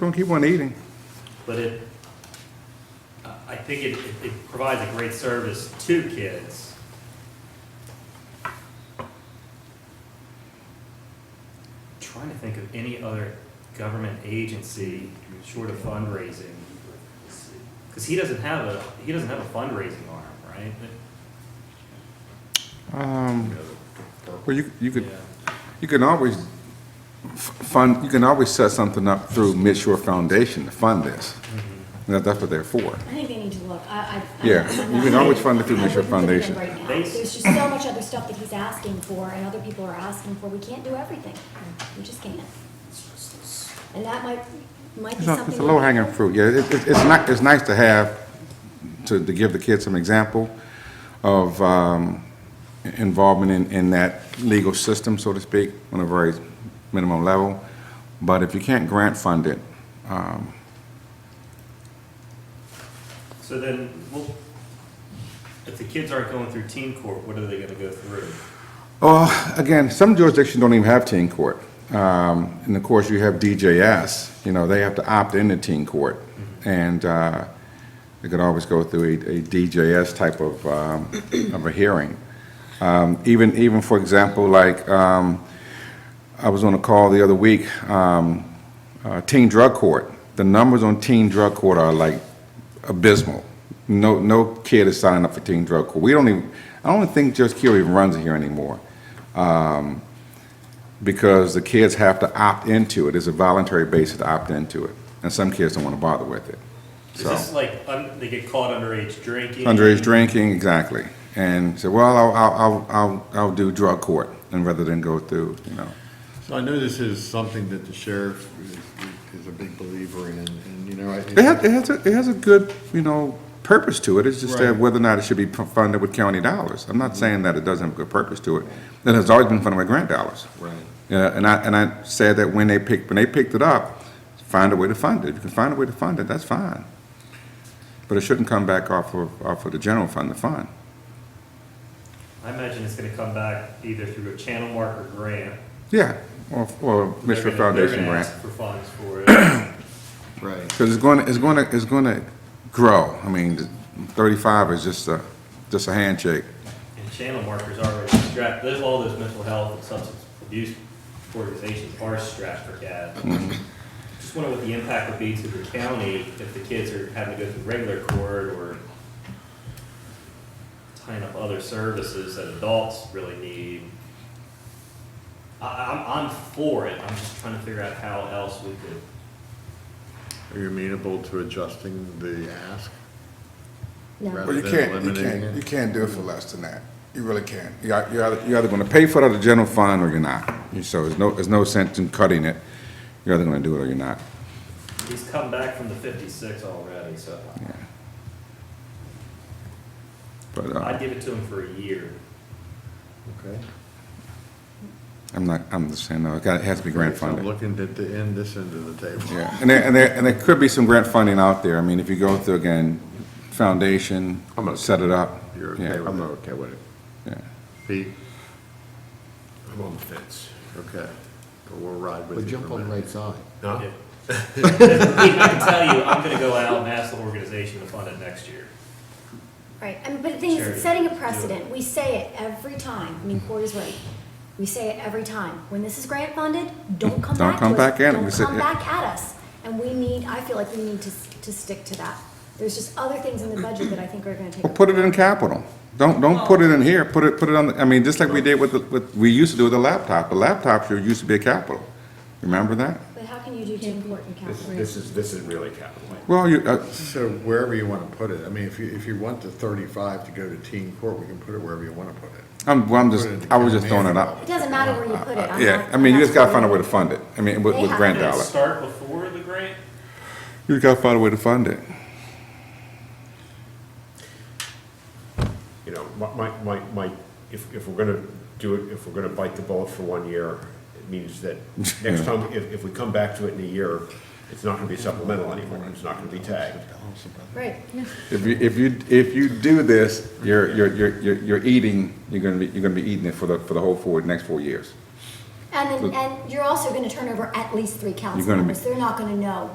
Don't keep on eating. But it, I- I think it, it- it provides a great service to kids. Trying to think of any other government agency short of fundraising. Because he doesn't have a, he doesn't have a fundraising arm, right? Um, Well, you, you could, Yeah. you can always f- fund, you can always set something up through Midshore Foundation to fund this. That- That's what they're for. I think they need to look, I, I. Yeah, I'm you can not- always fund it through I Mitchell wouldn't put it in Foundation. right now. They- There's just so much other stuff that he's asking for and other people are asking for, we can't do everything, we just can't. And that might, might be It's a- something. it's a low hanging fruit, yeah. It, it- it's not, it's nice to have, to, to give the kids some example of, um, involvement in, in that legal system, so to speak, on a very minimum level. But if you can't grant fund it, um, So then, well, if the kids aren't going through teen court, what are they gonna go through? Oh, again, some jurisdictions don't even have teen court. Um, And of course, you have DJS, you know, they have to opt into teen court. And uh, they could always go through a a DJS type of, um, of a hearing. Um, Even, even for example, like, um, I was on a call the other week, um, uh, teen drug court. The numbers on teen drug court are like abysmal. No, no kid is signing up for teen drug court. We don't even, I don't think Judge Keel even runs it here anymore. Um, because the kids have to opt into it. It's a voluntary basis to opt into it. And some kids don't want to bother with it. Is So- this like, un- they get caught underage drinking? Underage drinking, exactly. And said, well, I'll, I'll, I'll- I'll, I'll do drug court, and rather than go through, you know. So I know this is something that the sheriff is- is a big believer in, and, you know, I. It has, it has, a- it has a good, you know, purpose to it, it's just that Right. whether or not it should be funded with county dollars. I'm not saying that it doesn't have a good purpose to it, it has always been funded with grant dollars. Right. Yeah, and I, and I said that when they picked, when they picked it up, find a way to fund it, if you can find a way to fund it, that's fine. But it shouldn't come back off of, off of the general fund, the fund. I imagine it's gonna come back either through a channel mark or grant. Yeah, or, or They're Mitchell gonna- Foundation They're gonna grant. ask for funds for it. Right, Because it's going, to it's going to, it's going to grow. I mean, 35 is just a, just a handshake. And channel markers are already strapped, there's all those mental health and substance abuse organizations are strapped for CAD. Just wonder what the impact would be to the county if the kids are having to go through regular court or tying up other services that adults really need. I, I'm, I'm for it, I'm just trying to figure out how else we could are you amenable to adjusting the ask? No, Right. Well, you than can't, you eliminating can't, it? you can't do it for less than that. You really can't. You're ei- you're either, you're either going to pay for it out of the general fund or you're not. So there's no, there's no sense in cutting it. You're either going to do it or you're not. He's come back from the fifty-six already, so But I'd uh, give it to him for a year. Okay. I'm not, I'm just saying, no, it got- it has to be grant So I'm funded. Looking at the end, this end of the table. Yeah, and there, and there, and there could be some grant funding out there. I mean, if you go through again, foundation, I'm okay. set it up. You're Yeah, okay with it? I'm okay with it. Yeah. Pete, I'm on the fence. okay, but we'll ride with But you jump for a on the minute. right side. No? Yeah. I can tell you, I'm gonna go out and ask the organization to fund it next year. right, I mean, but the thing is, it's Charity. setting a precedent, we say it every time, I mean, Corey's right. We say it every time, when this is grant funded, don't come Don't back to us. come back at it. We Don't said- come yeah. back at us, and we need, I feel like we need to, s- to stick to that. There's just other things in the budget that I think are gonna take. Well, put it in capital. Don't, don't put it in here, put it, put it on, the- I mean, just like we did with, the with, we used to do with the laptop. The laptop should, used to be a capital. Remember that? But how can you do two important This, capital? this is, this is really capital. Well, you, uh, So wherever you want to put it, I mean, if you, if you want the thirty-five to go to teen court, we can put it wherever you want to put it. I'm, well, I'm just, Put it in I was just throwing it capital. out. It doesn't matter where you put it. I'm Yeah, not- I mean, you just gotta find a way to I'm fund it. I mean, with, with grant Did it dollars. start before the grant? You gotta find a way to fund it. You know, my, my- my, my, if, if we're gonna do it, if we're gonna bite the bullet for one year, it means that next time, if, if we come back to it in a year, it's not gonna be supplemental anymore, it's not gonna be tagged. not- Right. If you, if you, if you do this, you're, you're, you're, you're- you're eating, you're gonna be, you're gonna be eating it for the, for the whole four, next four years. And then, and you're also gonna turn over at least three council gonna be- members. They're not gonna know